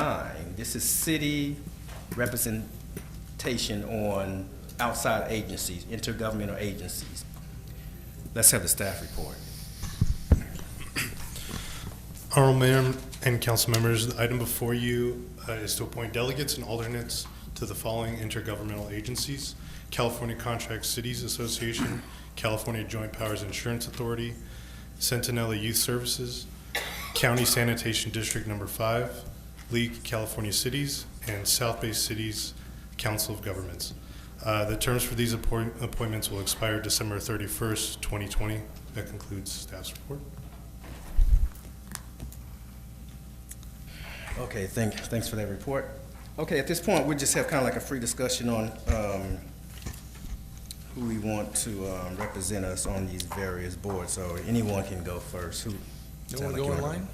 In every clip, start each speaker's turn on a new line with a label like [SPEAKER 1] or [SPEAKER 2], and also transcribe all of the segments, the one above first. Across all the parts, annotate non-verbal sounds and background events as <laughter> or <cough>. [SPEAKER 1] nine, this is city representation on outside agencies, intergovernmental agencies. Let's have the staff report.
[SPEAKER 2] Honorable Mayor and council members, the item before you uh, is to appoint delegates and alternates to the following intergovernmental agencies: California Contract Cities Association, California Joint Powers Insurance Authority, Centinela Youth Services, County Sanitation District Number Five, League California Cities, and South Bay Cities Council of Governments. Uh, The terms for these appoint- appointments will expire December 31st, 2020. That concludes staff's report.
[SPEAKER 1] Okay, thank, thanks for that report. Okay, at this point, we just have kind of like a free discussion on um, who we want to um, represent us on these various boards, so anyone can go first. Who?
[SPEAKER 3] You want to go online?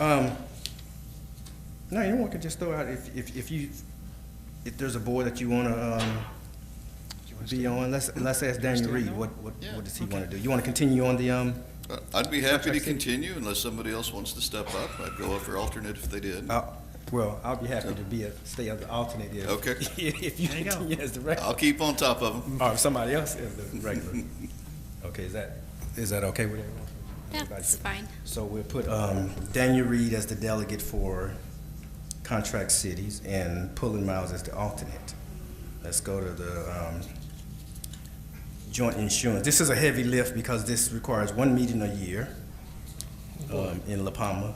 [SPEAKER 1] Um, No, anyone can just throw out, if, if if you, if there's a board that you want to be on, let's, let's ask Daniel Reed, what, what what does he want to do? You want to continue on the, um,
[SPEAKER 4] Uh, I'd be happy to
[SPEAKER 1] Contract City. continue
[SPEAKER 4] continue unless somebody else wants to step up. I'd go up for alternate if they did.
[SPEAKER 1] uh, well, I'll be happy to be a, stay as the alternate if.
[SPEAKER 4] Okay.
[SPEAKER 1] <laughs> If you
[SPEAKER 5] There you go.
[SPEAKER 1] continue as the regular.
[SPEAKER 4] <laughs> I'll keep on top of them.
[SPEAKER 1] Or if somebody else is the regular. Okay, is that, is that okay with everyone?
[SPEAKER 6] That's fine.
[SPEAKER 1] So we'll put um, Daniel Reed as the delegate for contract cities and Pullen Miles as the alternate. Let's go to the um, joint insurance. This is a heavy lift because this requires one meeting a year um, in La Palma.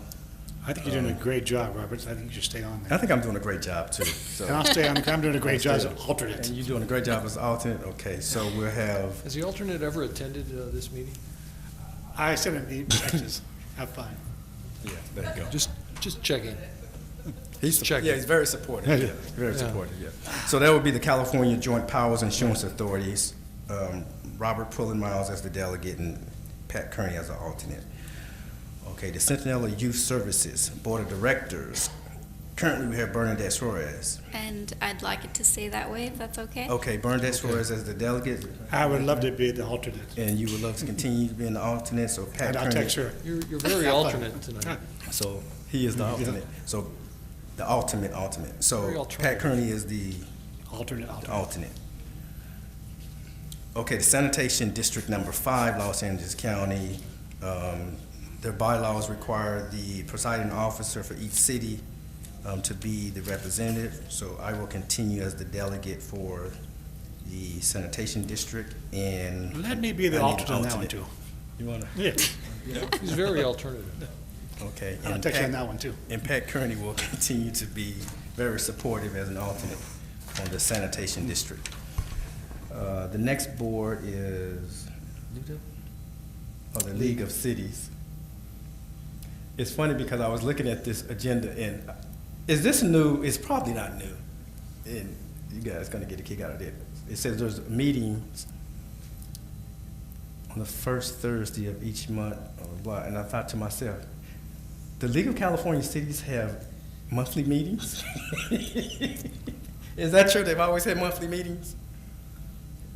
[SPEAKER 5] I think you're doing a great job, Roberts. I think you should stay on
[SPEAKER 1] I
[SPEAKER 5] there.
[SPEAKER 1] think I'm doing a great job too, so.
[SPEAKER 5] And I'll stay on, I'm doing a great job as an
[SPEAKER 1] And
[SPEAKER 5] alternate.
[SPEAKER 1] you're doing a great job as alternate? Okay, so we'll have,
[SPEAKER 3] Has the alternate ever attended uh, this meeting?
[SPEAKER 5] I said it, the just have fun.
[SPEAKER 1] yeah, there you go.
[SPEAKER 3] Just, just checking.
[SPEAKER 1] He's,
[SPEAKER 3] Check
[SPEAKER 1] yeah,
[SPEAKER 3] it.
[SPEAKER 1] he's very supportive,
[SPEAKER 5] Yeah.
[SPEAKER 1] yeah, very
[SPEAKER 3] Yeah.
[SPEAKER 1] supportive, yeah. So that would be the California Joint Powers Insurance Authorities, um, Robert Pullen Miles as the delegate and Pat Kearney as the alternate. Okay, the Centinela Youth Services Board of Directors, currently we have Bernadette Suarez.
[SPEAKER 6] And I'd like it to stay that way, if that's okay.
[SPEAKER 1] Okay, Bernadette Suarez as the delegate,
[SPEAKER 5] I would love to be the alternate.
[SPEAKER 1] and you would love to continue to be an alternate, so Pat
[SPEAKER 5] And I'll
[SPEAKER 1] Kearney.
[SPEAKER 5] text her.
[SPEAKER 3] You're,
[SPEAKER 1] <laughs>
[SPEAKER 3] you're very
[SPEAKER 5] Have fun.
[SPEAKER 3] alternate tonight.
[SPEAKER 1] So he is the
[SPEAKER 5] Yeah.
[SPEAKER 1] alternate, so the ultimate, ultimate.
[SPEAKER 3] Very
[SPEAKER 1] So Pat
[SPEAKER 3] alternative.
[SPEAKER 1] Kearney is the
[SPEAKER 5] Alternate, alternate.
[SPEAKER 1] alternate. Okay, the sanitation district number five, Los Angeles County, um, their bylaws require the presiding officer for each city um, to be the representative, so I will continue as the delegate for the sanitation district and.
[SPEAKER 5] Let me be the
[SPEAKER 1] I need an
[SPEAKER 5] alternate on that one,
[SPEAKER 1] alternate.
[SPEAKER 5] too.
[SPEAKER 1] You wanna?
[SPEAKER 5] Yeah,
[SPEAKER 3] He's very alternative.
[SPEAKER 1] Okay.
[SPEAKER 5] I'll
[SPEAKER 1] and
[SPEAKER 5] text her
[SPEAKER 1] Pat-
[SPEAKER 5] on that one, too.
[SPEAKER 1] And Pat Kearney will <laughs> continue to be very supportive as an alternate on the sanitation district. Uh, The next board is, oh, the League of Cities. It's funny because I was looking at this agenda and, uh, is this new? It's probably not new. And you guys gonna get a kick out of it. It says there's meetings on the first Thursday of each month, or what, and I thought to myself, the League of California Cities have monthly meetings? <laughs> Is that true? They've always had monthly meetings? <laughs>
[SPEAKER 3] I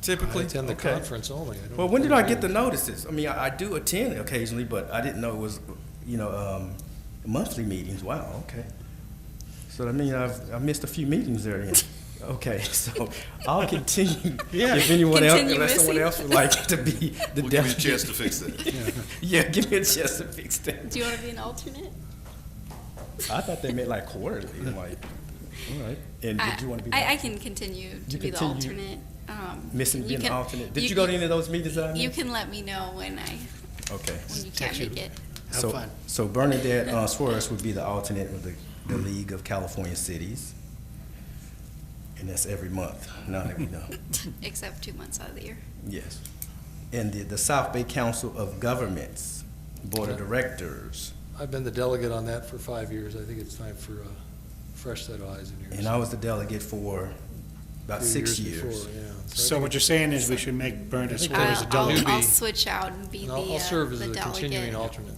[SPEAKER 1] Typically?
[SPEAKER 3] attend the
[SPEAKER 1] Okay.
[SPEAKER 3] conference only. don't
[SPEAKER 1] Well, when did I get the
[SPEAKER 3] attend
[SPEAKER 1] notices? I mean, I, I do attend occasionally, but I didn't know it was, you know, um, monthly meetings. Wow, okay. So I mean, I've, I missed a few meetings there
[SPEAKER 6] <laughs>
[SPEAKER 1] then. Okay, <laughs> so I'll continue.
[SPEAKER 5] Yeah.
[SPEAKER 1] If anyone else,
[SPEAKER 6] Continue
[SPEAKER 1] unless someone
[SPEAKER 6] missing.
[SPEAKER 1] else would like to be the
[SPEAKER 4] We'll give you a
[SPEAKER 1] delegate.
[SPEAKER 4] chance to fix that.
[SPEAKER 1] <laughs> Yeah, give me a chance to fix that.
[SPEAKER 6] <laughs> Do you want to be an alternate?
[SPEAKER 1] I thought they meant like quarterly, I'm like, all right. And
[SPEAKER 6] I,
[SPEAKER 1] did you want to be
[SPEAKER 6] I, I can continue to
[SPEAKER 1] You
[SPEAKER 6] be the
[SPEAKER 1] continue.
[SPEAKER 6] alternate. Um,
[SPEAKER 1] missing
[SPEAKER 6] you
[SPEAKER 1] being an
[SPEAKER 6] can-
[SPEAKER 1] alternate? Did you go to any of those meetings that I
[SPEAKER 6] You
[SPEAKER 1] missed?
[SPEAKER 6] can let me know when I,
[SPEAKER 1] Okay.
[SPEAKER 6] when you can't
[SPEAKER 5] Text you.
[SPEAKER 6] make it.
[SPEAKER 5] Have
[SPEAKER 1] So-
[SPEAKER 5] fun.
[SPEAKER 1] So Bernadette uh, Suarez would be the alternate of the, the League of California Cities. And that's every month, now that we know.
[SPEAKER 6] Except two months out of the year.
[SPEAKER 1] Yes. And the, the South Bay Council of Governments Board of Directors.
[SPEAKER 3] I've been the delegate on that for five years. I think it's time for a fresh set of eyes in
[SPEAKER 1] And
[SPEAKER 3] here.
[SPEAKER 1] I was the delegate for about six years.
[SPEAKER 3] before, yeah.
[SPEAKER 5] So
[SPEAKER 3] I
[SPEAKER 5] what you're saying is we should make Bernadette
[SPEAKER 3] think
[SPEAKER 5] Suarez a
[SPEAKER 3] I'll-
[SPEAKER 5] delegate.
[SPEAKER 6] I'll
[SPEAKER 3] Newbie.
[SPEAKER 6] switch out and be
[SPEAKER 3] think-
[SPEAKER 6] the
[SPEAKER 3] and
[SPEAKER 6] uh,
[SPEAKER 3] I'll, I'll serve as
[SPEAKER 6] the
[SPEAKER 3] the continuing
[SPEAKER 6] delegate.
[SPEAKER 3] alternate.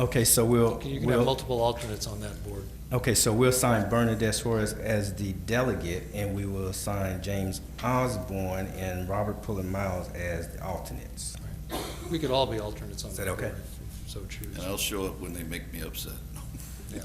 [SPEAKER 1] Okay, so we'll,
[SPEAKER 3] You can have
[SPEAKER 1] we'll,
[SPEAKER 3] multiple alternates on that board.
[SPEAKER 1] okay, so we'll assign Bernadette Suarez as the delegate, and we will assign James Osborne and Robert Pullen Miles as the alternates.
[SPEAKER 3] We could all be alternates on
[SPEAKER 1] Is
[SPEAKER 3] that
[SPEAKER 1] that
[SPEAKER 3] board
[SPEAKER 1] okay?
[SPEAKER 3] if you so choose.
[SPEAKER 4] And I'll show up when they make me upset.
[SPEAKER 3] Yeah.